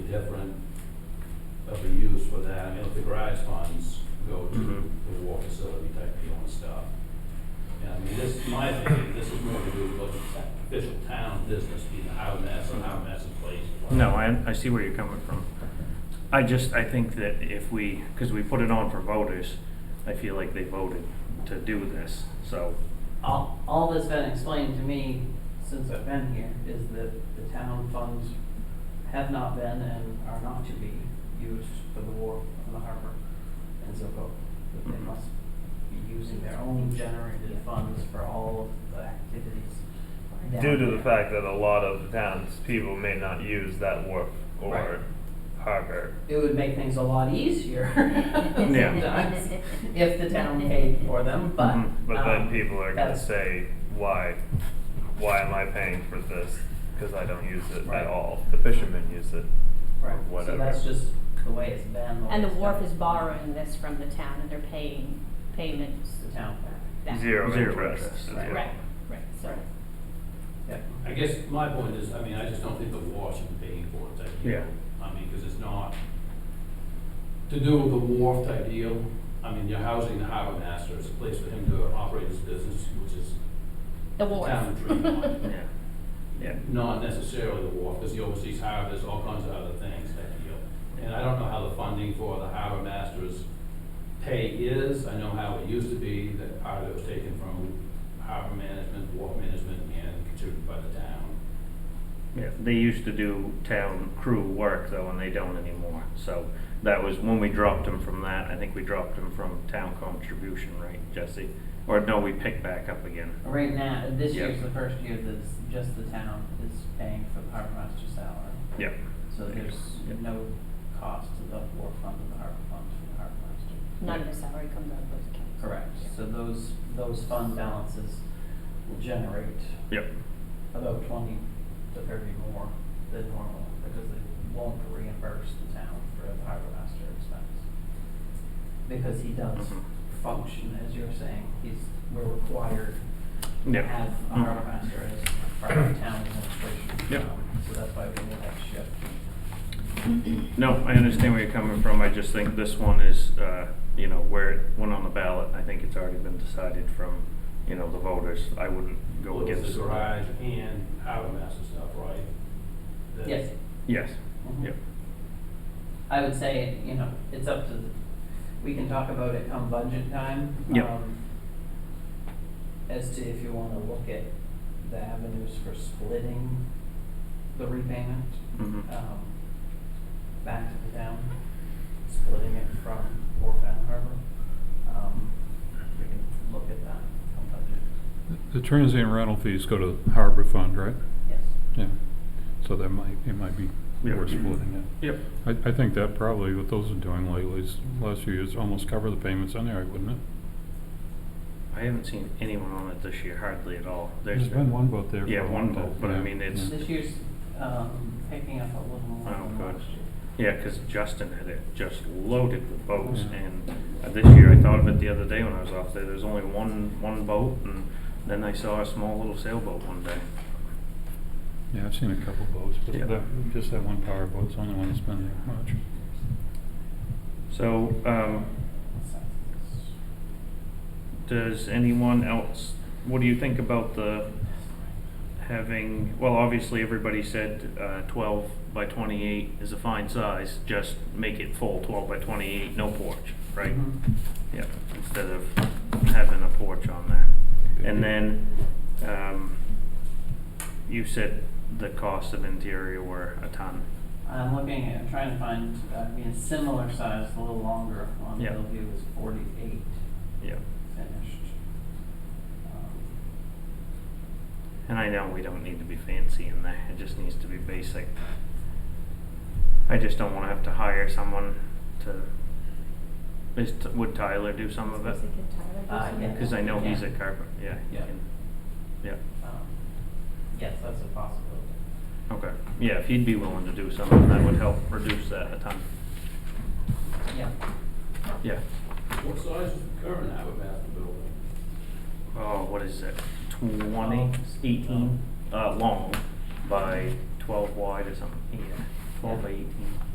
different of a use for that, I mean, if the garage funds go to Mhm. the war facility type deal and stuff. And I mean, this, in my opinion, this is more to do with official town business, being how that's, and how that's in place. No, I, I see where you're coming from. I just, I think that if we, because we put it on for voters, I feel like they voted to do this, so. All, all that's been explained to me since I've been here is that the town funds have not been and are not to be used for the war on the harbor and so forth. That they must be using their own generated funds for all of the activities. down Due to the there. fact that a lot of the town's people may not use that wharf Right. or harbor. It would make things a lot easier Yeah. sometimes if the town paid for them, but. Mhm, Mm-hmm. But then um, people are gonna that's- say, why, why am I paying for this? Cause I don't use it Right. at all. The fishermen use it. Right, so whatever. that's just the way it's been. way And the it's wharf been. is borrowing this from the town and they're paying payments The town, back. Zero Zero interest. interest, is right. what- Right, right, so. yeah. I guess my point is, I mean, I just don't think the war should be paying for it type deal. Yeah. I mean, because it's not, to do with the wharf type deal, I mean, you're housing the harbor master, it's a place for him to operate his business, which is The wharf. Town and Tremont. Mm. Yeah. Yeah. not necessarily the wharf, because he oversees harbors, all kinds of other things type deal. And I don't know how the funding for the harbor master's pay is, I know how it used to be, that part of it was taken from harbor management, wharf management, and contributed by the town. Yeah, they used to do town crew work though, and they don't anymore, so that was when we dropped them from that, I think we dropped them from town contribution, right, Jesse? Or no, we picked back up again. Right now, this Yeah. year's the first year that's just the town is paying for the harbor master salary. Yep. So there's Yeah. no cost to the war fund or the harbor fund for the harbor master. None of the salary comes out of those accounts. Correct, so those, those fund balances will generate Yep, about twenty to thirty more than normal, because they won't reimburse the town for the harbor master expense. Because he does Mhm. function, as you're saying, he's, we're required to Yeah. have a Mhm. harbor master as part of town administration. Yep. um, So that's why we made that shift. no, I understand where you're coming from, I just think this one is, uh, you know, where it went on the ballot, I think it's already been decided from, you know, the voters, I wouldn't go Well, it's against. The garage and harbor master stuff, right? That- Yes. Yes, Mhm. yep. I would say, you know, it's up to, the we can talk about it come budget time. Yep. um, As to if you wanna look at the avenues for splitting the repayment, Mhm. um, back to the town, splitting it from Wharf and Harbor. Um, we can look at that come budget, The transient rental fees go to the harbor fund, right? yes. Yeah. So that might, it might be Yeah. worth splitting it. Yep. I, I think that probably what those are doing lately is, last few years, almost cover the payments anyway, wouldn't it? I haven't seen anyone on it this year, hardly at all. There's been one boat there. for Yeah, a one long time. vote, but I Yeah, mean, it's- yeah. This year's, um, picking up a little more Oh, than good. last year. Yeah, because Justin had it just loaded with boats, Yeah. and uh, this year, I thought of it the other day when I was off there, there's only one, one boat, and then I saw a small little sailboat one day. Yeah, I've seen a couple boats, but Yeah. that, just that one power boat's the only one that's been there much. So, um, does anyone else, what do you think about the having, well, obviously, everybody said, uh, twelve by twenty-eight is a fine size, just make it full, twelve by twenty-eight, no porch, right? Mhm. Yeah, instead of having a porch on there. And then, um, you said the cost of interior were a ton. I'm looking at, trying to find, uh, I mean, a similar size, a little longer on Yeah. Bellevue is forty-eight Yeah. finished. Um, And I know we don't need to be fancy in there, it just needs to be basic. I just don't wanna have to hire someone to, is, T- would Tyler do some of it? Is it good Tyler do Uh, something? yeah. Cause I know he's Yeah. a carpenter, yeah. he Yeah. can- Yeah, um, Yes, that's a possibility. okay, yeah, if he'd be willing to do something, that would help reduce that a ton, Yeah, yeah. What size is the current harbor master building? oh, what is it, twenty, eighteen, uh, long by twelve wide or something, yeah. twelve by eighteen.